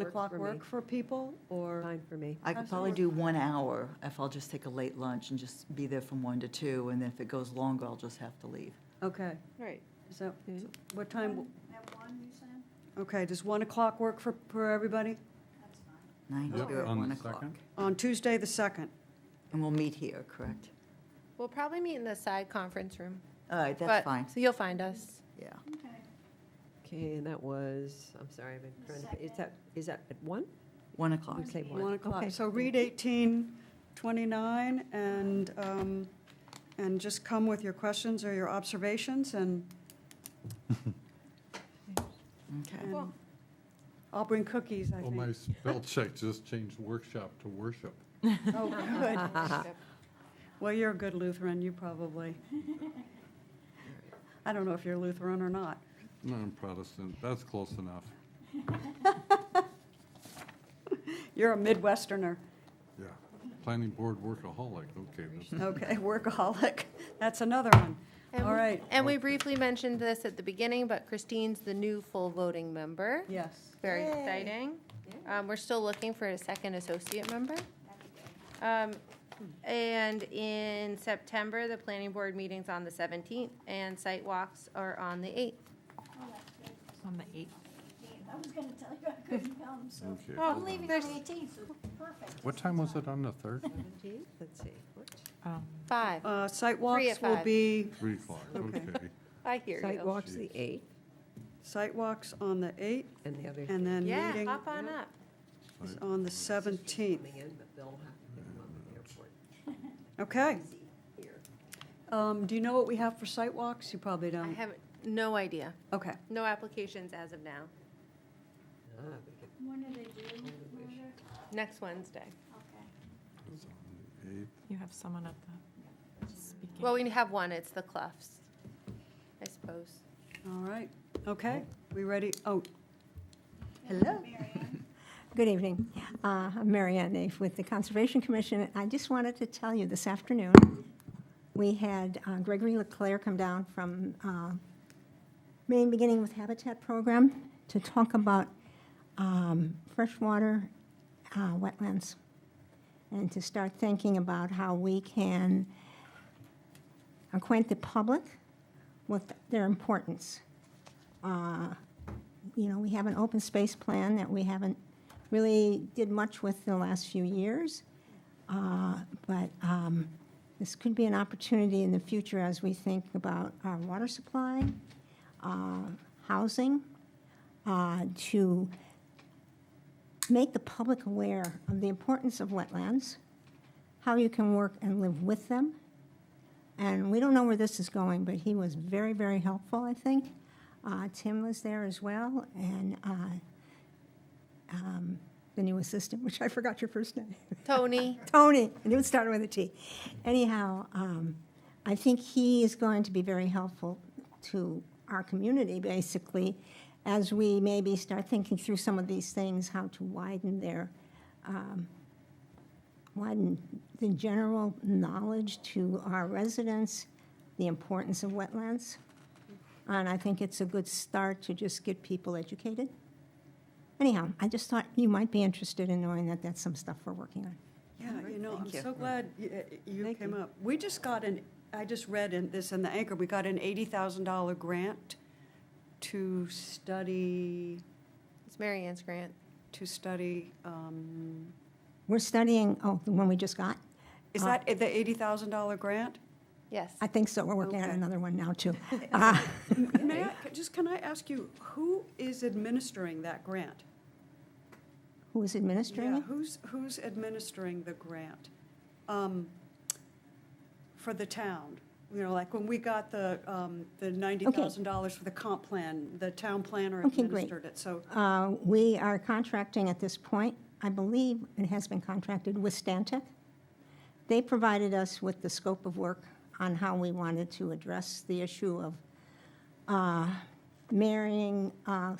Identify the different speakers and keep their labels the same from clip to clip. Speaker 1: The
Speaker 2: Works
Speaker 1: clock
Speaker 2: for me.
Speaker 1: work for people, or?
Speaker 2: Fine for me.
Speaker 3: I could probably do one hour if I'll just take a late lunch and just be there from one to two, and then if it goes longer, I'll just have to leave.
Speaker 1: Okay,
Speaker 2: Right.
Speaker 1: so what time,
Speaker 4: At one, you said?
Speaker 1: okay, does 1 o'clock work for, for everybody?
Speaker 4: That's fine.
Speaker 3: Nine to
Speaker 4: Yep,
Speaker 3: two at
Speaker 5: on the
Speaker 3: one o'clock.
Speaker 5: second.
Speaker 1: On Tuesday, the 2nd.
Speaker 3: And we'll meet here, correct?
Speaker 6: We'll probably meet in the side conference room.
Speaker 3: All right, that's
Speaker 6: but-
Speaker 3: fine,
Speaker 6: So you'll find us.
Speaker 3: yeah.
Speaker 4: Okay.
Speaker 2: Okay, and that was, I'm sorry, I've been trying to, is that, is that at one?
Speaker 3: One o'clock.
Speaker 2: You say one.
Speaker 1: 1 o'clock.
Speaker 2: Okay.
Speaker 1: So read 1829 and, um, and just come with your questions or your observations, and
Speaker 3: Okay.
Speaker 6: Cool.
Speaker 1: I'll bring cookies, I
Speaker 5: Well, Oh, my
Speaker 1: think.
Speaker 5: spell check just changed workshop to worship.
Speaker 1: Oh, good. Well, you're a good Lutheran, you probably. I don't know if you're Lutheran or not.
Speaker 5: No, I'm Protestant, that's close enough.
Speaker 1: You're a Midwesterner.
Speaker 5: Yeah. Planning board workaholic, okay. that's-
Speaker 1: Okay, workaholic. That's another one.
Speaker 6: And
Speaker 1: All
Speaker 6: we-
Speaker 1: right,
Speaker 6: And we briefly mentioned this at the beginning, but Christine's the new full voting member.
Speaker 1: yes.
Speaker 6: Very exciting. Um, We're still looking for a second associate member. Um, And in September, the planning board meeting's on the 17th, and site walks are on the 8th.
Speaker 7: On the 8th.
Speaker 4: I was gonna tell you I couldn't come, so
Speaker 5: Okay.
Speaker 6: Oh,
Speaker 4: I'm leaving on
Speaker 6: there's-
Speaker 4: the eighteenth, so perfect.
Speaker 5: Mm. What time was it on the third?
Speaker 2: Seventeenth, let's see, what?
Speaker 7: Um,
Speaker 6: Five,
Speaker 1: Uh, Site
Speaker 6: Three
Speaker 1: walks
Speaker 6: at
Speaker 1: will
Speaker 6: five.
Speaker 1: be,
Speaker 5: Three o'clock,
Speaker 1: Okay.
Speaker 5: okay.
Speaker 6: I hear you.
Speaker 2: Sidewalk's the eighth,
Speaker 1: site walks on the 8th,
Speaker 2: and the other
Speaker 1: and then
Speaker 6: Yeah,
Speaker 1: meeting
Speaker 6: hop on up.
Speaker 1: is on the 17th.
Speaker 2: coming in, but they'll have to pick them up at the airport.
Speaker 1: Okay. Um, Do you know what we have for site walks? You probably
Speaker 6: I
Speaker 1: don't.
Speaker 6: have no idea.
Speaker 1: Okay,
Speaker 6: No applications as of now.
Speaker 2: Ah, we could-
Speaker 4: When are they doing, Mother?
Speaker 6: Next Wednesday.
Speaker 4: Okay.
Speaker 5: It's on the eighth.
Speaker 7: You have someone at the speaking.
Speaker 6: Well, we have one, it's the Cloughs, I suppose.
Speaker 1: all right. Okay, we ready? Oh,
Speaker 3: Hello.
Speaker 4: Mary Ann?
Speaker 8: Good evening. Uh, I'm Mary Ann Naif with the Conservation Commission. I just wanted to tell you this afternoon, we had uh, Gregory Leclaire come down from uh, Maine Beginning with Habitat Program to talk about um, freshwater uh, wetlands and to start thinking about how we can acquaint the public with their importance. Uh, you know, we have an open space plan that we haven't really did much with in the last few years. Uh, But um, this could be an opportunity in the future as we think about our water supply, uh, housing, uh, to make the public aware of the importance of wetlands, how you can work and live with them. And we don't know where this is going, but he was very, very helpful, I think. Uh, Tim was there as well, and uh, um, the new assistant, which I forgot your first name.
Speaker 6: Tony?
Speaker 8: Tony, and it started with a T. Anyhow, um, I think he is going to be very helpful to our community, basically, as we maybe start thinking through some of these things, how to widen their, um, widen the general knowledge to our residents, the importance of wetlands. And I think it's a good start to just get people educated. Anyhow, I just thought you might be interested in knowing that that's some stuff we're working on.
Speaker 1: Yeah, you know, I'm
Speaker 2: thank you.
Speaker 1: so glad y- y- you
Speaker 2: Thank
Speaker 1: came
Speaker 2: you.
Speaker 1: up. We just got an, I just read in this in the Anchor, we got an $80,000 grant to study,
Speaker 6: It's Mary Ann's grant.
Speaker 1: to study, um,
Speaker 8: We're studying, oh, the one we just got? Uh,
Speaker 1: is that the $80,000 grant?
Speaker 6: Yes.
Speaker 8: I think so. We're working on
Speaker 1: Okay.
Speaker 8: another one now, too. Ah,
Speaker 1: May I, just can I ask you, who is administering that grant?
Speaker 8: Who is administering
Speaker 1: Yeah,
Speaker 8: it?
Speaker 1: who's, who's administering the grant? Um, For the town? You know, like when we got the, um, the $90,000 for the comp plan, the town planner
Speaker 8: Okay, great.
Speaker 1: administered it. So,
Speaker 8: Uh, We are contracting at this point, I believe it has been contracted with Stantec. They provided us with the scope of work on how we wanted to address the issue of uh, marrying, uh,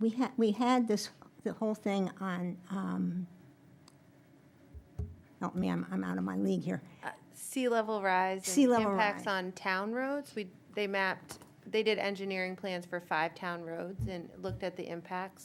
Speaker 8: we had, we had this, the whole thing on, um, help me, I'm, I'm out of my league here.
Speaker 6: Uh, Sea level rise. and
Speaker 8: Sea level
Speaker 6: Impacts
Speaker 8: rise.
Speaker 6: on town roads. We, they mapped they did engineering plans for five town roads and looked at the impacts